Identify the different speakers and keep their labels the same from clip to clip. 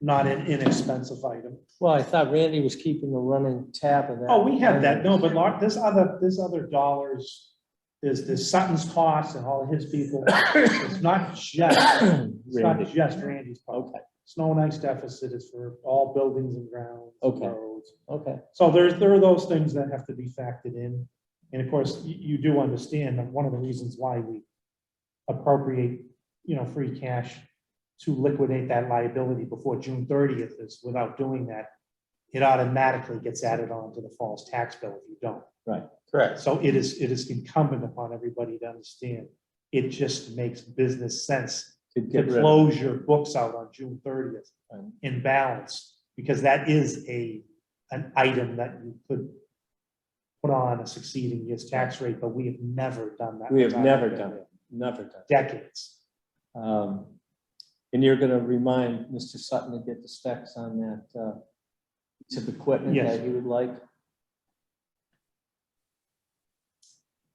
Speaker 1: not an inexpensive item.
Speaker 2: Well, I thought Randy was keeping a running tab of that.
Speaker 1: Oh, we had that, no, but Mark, this other, this other dollars, is this Sutton's cost and all his people. It's not just, it's not
Speaker 2: Randy.
Speaker 1: just Randy's part.
Speaker 2: Okay,
Speaker 1: Snow and ice deficit is for all buildings and grounds.
Speaker 2: Okay.
Speaker 1: roads.
Speaker 2: okay.
Speaker 1: So there's, there are those things that have to be factored in. And of course, you, you do understand that one of the reasons why we appropriate, you know, free cash to liquidate that liability before June thirtieth is without doing that, it automatically gets added on to the false tax bill if you don't.
Speaker 3: Correct.
Speaker 1: So it is, it is incumbent upon everybody to understand. It just makes business sense
Speaker 3: To
Speaker 1: to
Speaker 3: get rid of.
Speaker 1: close your books out on June thirtieth
Speaker 3: Um,
Speaker 1: in balance, because that is a, an item that you could put on a succeeding year's tax rate, but we have never done that.
Speaker 3: We have
Speaker 1: with our
Speaker 3: never done it, never done. it.
Speaker 1: Decades.
Speaker 3: Um, And you're gonna remind Mr. Sutton to get the specs on that, uh, piece of equipment
Speaker 1: Yes.
Speaker 3: that he would like.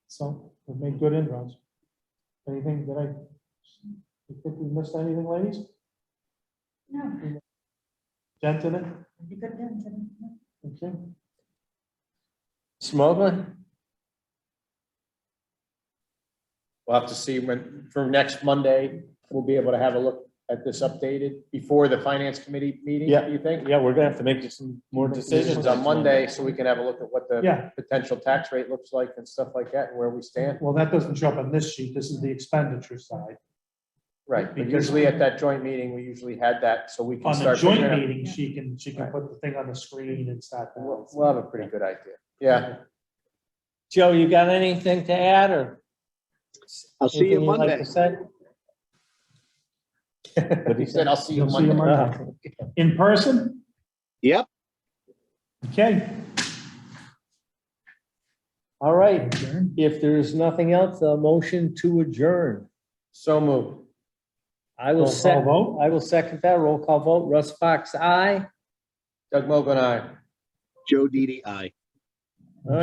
Speaker 1: So we've made good inroads. Anything that I, you think we missed anything, ladies?
Speaker 4: No,
Speaker 1: Gentlemen?
Speaker 4: it'd be good then, to-
Speaker 1: Okay.
Speaker 3: Smuggler?
Speaker 5: We'll have to see when, for next Monday, we'll be able to have a look at this updated before the finance committee meeting,
Speaker 3: Yeah.
Speaker 5: do you think?
Speaker 3: Yeah, we're gonna have to make some more
Speaker 5: Decisions on Monday, so we can have a look at what the
Speaker 1: Yeah,
Speaker 5: potential tax rate looks like and stuff like that, and where we stand.
Speaker 1: well, that doesn't show up on this sheet. This is the expenditure side.
Speaker 5: Right, but
Speaker 1: Because-
Speaker 5: usually at that joint meeting, we usually had that, so we can
Speaker 1: On the
Speaker 5: start.
Speaker 1: joint
Speaker 5: figuring out-
Speaker 1: meeting, she can, she can put the thing on the screen and start.
Speaker 5: We'll, we'll have a pretty good idea, yeah.
Speaker 2: Joe, you got anything to add or?
Speaker 6: I'll see you
Speaker 2: anything you'd like to
Speaker 6: Monday.
Speaker 2: say?
Speaker 5: He said, I'll see you
Speaker 1: You'll see you
Speaker 5: Monday.
Speaker 1: Monday. In person?
Speaker 6: Yep.
Speaker 1: Okay.
Speaker 2: All right,
Speaker 1: Adjourn.
Speaker 2: if there is nothing else, a motion to adjourn.
Speaker 5: So moved.
Speaker 2: I will
Speaker 1: Roll call
Speaker 2: sec,
Speaker 1: vote.
Speaker 2: I will second that. Roll call vote. Russ Fox, aye.
Speaker 5: Doug Mogul, aye.
Speaker 6: Joe Didi, aye.